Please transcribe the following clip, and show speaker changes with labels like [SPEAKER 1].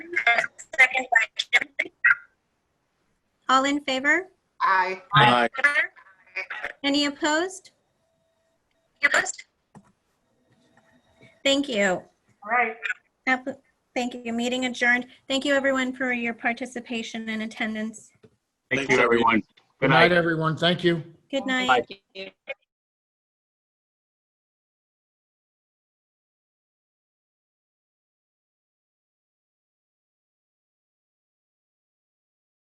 [SPEAKER 1] All in favor?
[SPEAKER 2] Aye.
[SPEAKER 3] Aye.
[SPEAKER 1] Any opposed? Thank you.
[SPEAKER 2] All right.
[SPEAKER 1] App- Thank you. Meeting adjourned. Thank you, everyone, for your participation and attendance.
[SPEAKER 4] Thank you, everyone. Good night.
[SPEAKER 3] everyone. Thank you.
[SPEAKER 1] Good night.
[SPEAKER 4] Bye.